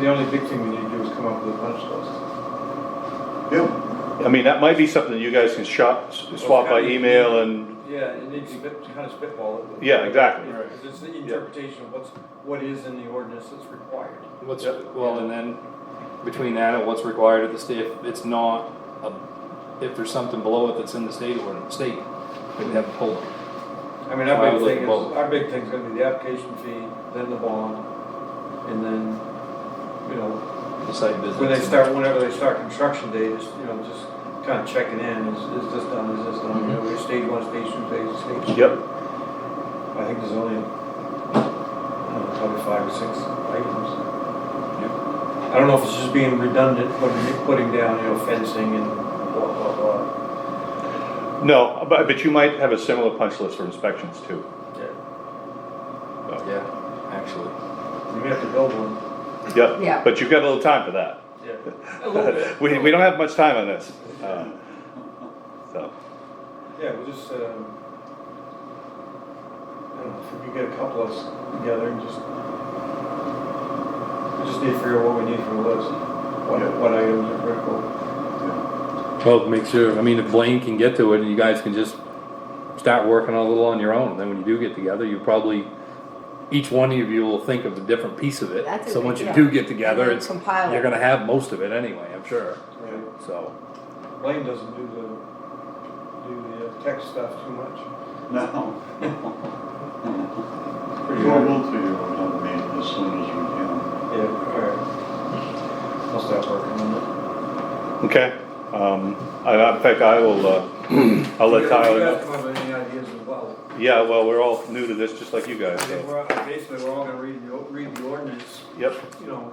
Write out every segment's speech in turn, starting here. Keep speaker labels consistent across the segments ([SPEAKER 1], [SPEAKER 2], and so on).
[SPEAKER 1] The only big thing we need to do is come up with a punch list.
[SPEAKER 2] Yeah,
[SPEAKER 3] I mean, that might be something you guys can shop, swap by email and,
[SPEAKER 1] Yeah, it needs to bit, kind of spitball it.
[SPEAKER 3] Yeah, exactly.
[SPEAKER 1] Yeah, 'cause it's the interpretation of what's, what is in the ordinance that's required.
[SPEAKER 4] What's, well, and then between that and what's required of the state, if it's not, a- if there's something below it that's in the state ordinance, state, we'd have to pull it.
[SPEAKER 1] I mean,
[SPEAKER 4] I
[SPEAKER 1] our
[SPEAKER 4] would
[SPEAKER 1] big
[SPEAKER 4] look
[SPEAKER 1] thing
[SPEAKER 4] at
[SPEAKER 1] is,
[SPEAKER 4] both.
[SPEAKER 1] our big thing's gonna be the application fee, then the bond, and then, you know,
[SPEAKER 4] the site business.
[SPEAKER 1] when they start, whenever they start construction date, is, you know, just kind of checking in, is, is this done, is this done, you know, we're stage one, stage two, stage, stage. three.
[SPEAKER 3] yep,
[SPEAKER 1] I think there's only, I don't know, probably five or six items. I don't know if it's just being redundant, putting, putting down, you know, fencing and blah, blah, blah.
[SPEAKER 3] no, but, but you might have a similar punch list for inspections too.
[SPEAKER 1] Yeah.
[SPEAKER 4] Yeah, actually.
[SPEAKER 1] You may have to build one.
[SPEAKER 3] Yep,
[SPEAKER 5] Yeah.
[SPEAKER 3] but you've got a little time for that.
[SPEAKER 1] Yeah. A little bit.
[SPEAKER 3] We, we don't have much time on this. uh, So,
[SPEAKER 1] Yeah, we'll just, um, I don't know, if we could get a couple of us together and just, we just need to figure out what we need from the list. What,
[SPEAKER 2] Yeah.
[SPEAKER 1] what items are critical.
[SPEAKER 6] Well, make sure, I mean, if Blaine can get to it and you guys can just start working a little on your own, then when you do get together, you probably, each one of you will think of a different piece of it.
[SPEAKER 5] That's a
[SPEAKER 6] So
[SPEAKER 5] good-
[SPEAKER 6] once you
[SPEAKER 5] yeah.
[SPEAKER 6] do get together,
[SPEAKER 5] And then
[SPEAKER 6] it's,
[SPEAKER 5] compile it.
[SPEAKER 6] you're gonna have most of it anyway, I'm sure,
[SPEAKER 1] Right.
[SPEAKER 6] so.
[SPEAKER 1] Blaine doesn't do the, do the uh, tech stuff too much.
[SPEAKER 2] no.
[SPEAKER 1] Pretty
[SPEAKER 2] We'll,
[SPEAKER 1] hard.
[SPEAKER 2] we'll figure it out, man, as soon as we can.
[SPEAKER 1] Yeah, alright. I'll start working on it.
[SPEAKER 3] okay, um, I, in fact, I will, uh, I'll let Tyler
[SPEAKER 1] You
[SPEAKER 3] know.
[SPEAKER 1] guys come up with any ideas as well.
[SPEAKER 3] Yeah, well, we're all new to this, just like you guys,
[SPEAKER 1] I think
[SPEAKER 3] so,
[SPEAKER 1] we're, all- basically, we're all gonna read the, o- read the ordinance,
[SPEAKER 3] yep,
[SPEAKER 1] you know,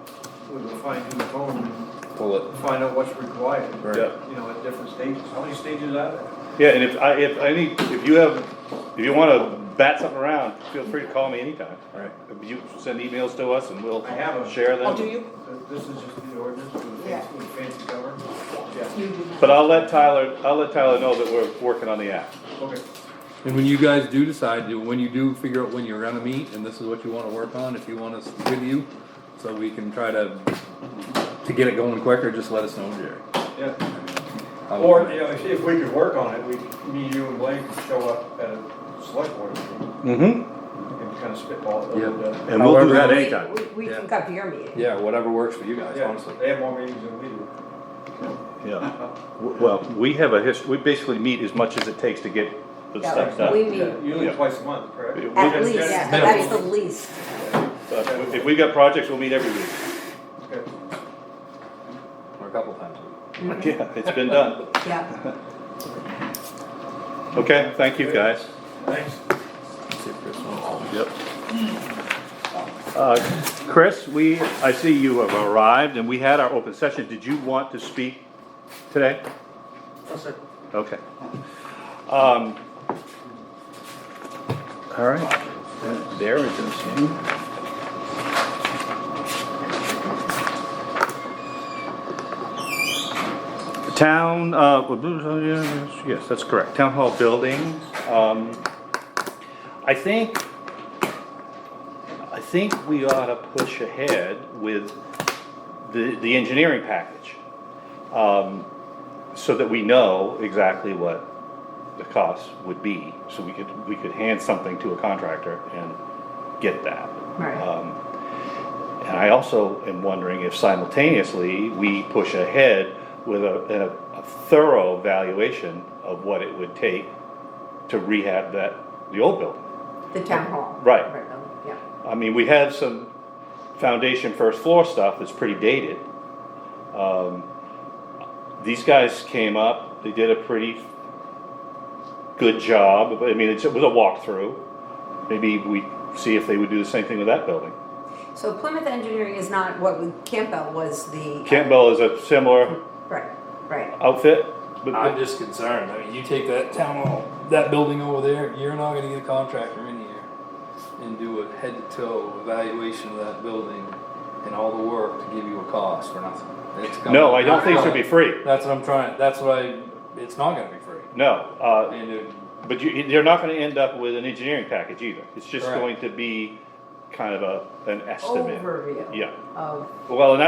[SPEAKER 1] with a fine tooth comb
[SPEAKER 4] Pull it.
[SPEAKER 1] and find out what's required.
[SPEAKER 3] yeah.
[SPEAKER 1] You know, at different stages. How many stages are there?
[SPEAKER 3] Yeah, and if I, if any, if you have, if you wanna bat something around, feel free to call me anytime.
[SPEAKER 6] Alright.
[SPEAKER 3] You send emails to us and we'll
[SPEAKER 1] I have 'em.
[SPEAKER 3] share
[SPEAKER 5] Oh, do
[SPEAKER 3] them.
[SPEAKER 5] you?
[SPEAKER 1] This is just the ordinance with a
[SPEAKER 5] Yeah.
[SPEAKER 1] fancy, with a fancy cover? Yeah,
[SPEAKER 5] You do.
[SPEAKER 3] But I'll let Tyler, I'll let Tyler know that we're working on the app.
[SPEAKER 1] okay.
[SPEAKER 6] And when you guys do decide, to- when you do figure out when you're gonna meet, and this is what you wanna work on, if you want us with you, so we can try to, to get it going quicker, just let us know, Jerry.
[SPEAKER 1] Yeah.
[SPEAKER 6] I'll-
[SPEAKER 1] Or, you know, if, if we could work on it, we, me, you and Blake could show up at a select board meeting
[SPEAKER 3] Mm-hmm.
[SPEAKER 1] and kind of spitball it a little
[SPEAKER 6] Yeah.
[SPEAKER 1] bit.
[SPEAKER 3] And we'll do
[SPEAKER 6] However-
[SPEAKER 3] that
[SPEAKER 5] We-
[SPEAKER 3] anytime.
[SPEAKER 5] we- We
[SPEAKER 6] Yeah.
[SPEAKER 5] can come to your meeting.
[SPEAKER 6] Yeah, whatever works for you guys,
[SPEAKER 1] Yeah,
[SPEAKER 6] honestly.
[SPEAKER 1] they have more meetings than we do.
[SPEAKER 3] Yeah. W- Well, we have a hist, we basically meet as much as it takes to get the
[SPEAKER 5] Yeah,
[SPEAKER 3] stuff
[SPEAKER 5] We
[SPEAKER 3] done.
[SPEAKER 1] Yeah,
[SPEAKER 5] meet
[SPEAKER 1] Usually
[SPEAKER 3] Yeah.
[SPEAKER 1] twice a month, correct?
[SPEAKER 3] It-
[SPEAKER 5] at
[SPEAKER 3] we-
[SPEAKER 5] least, yeah,
[SPEAKER 6] minimum.
[SPEAKER 5] that's the least.
[SPEAKER 3] But If we've got projects, we'll meet every week.
[SPEAKER 1] Okay.
[SPEAKER 6] Or a couple times a week.
[SPEAKER 3] Yeah, it's been done.
[SPEAKER 5] Yeah.
[SPEAKER 3] Okay, thank you, guys.
[SPEAKER 1] Thanks.
[SPEAKER 6] See if Chris wants
[SPEAKER 3] Yep. Uh, Chris, we, I see you have arrived and we had our open session. Did you want to speak today? Okay. Um, All right. There it is. Town, uh, yes, that's correct. Town Hall building. Um, I think I think we ought to push ahead with the, the engineering package. um, So that we know exactly what the cost would be, so we could, we could hand something to a contractor and get that.
[SPEAKER 5] Right.
[SPEAKER 3] Um, And I also am wondering if simultaneously, we push ahead with a, a- a thorough valuation of what it would take to rehab that, the old building.
[SPEAKER 5] The town hall.
[SPEAKER 3] Right.
[SPEAKER 5] though, Yeah.
[SPEAKER 3] I mean, we have some foundation first floor stuff that's pretty dated. Um, These guys came up, they did a pretty good job, I mean, it's- it was a walkthrough. Maybe we see if they would do the same thing with that building.
[SPEAKER 5] So Plymouth Engineering is not what we- Campbell was the.
[SPEAKER 3] Campbell is a similar
[SPEAKER 5] Right, right.
[SPEAKER 3] outfit,
[SPEAKER 4] I'm
[SPEAKER 3] but,
[SPEAKER 4] just concerned, I mean, you take that town hall, that building over there, you're not gonna get a contractor in here and do a head to toe evaluation of that building and all the work to give you a cost for nothing. It's gonna-
[SPEAKER 3] no, I don't think it should be free,
[SPEAKER 4] That's what I'm trying, that's what I, it's not gonna be free.
[SPEAKER 3] no. uh,
[SPEAKER 4] And it-
[SPEAKER 3] But you, they're not gonna end up with an engineering package either, it's just
[SPEAKER 4] Correct.
[SPEAKER 3] going to be kind of a, an estimate.
[SPEAKER 5] Overview.
[SPEAKER 3] Yeah,
[SPEAKER 5] of
[SPEAKER 3] Well, and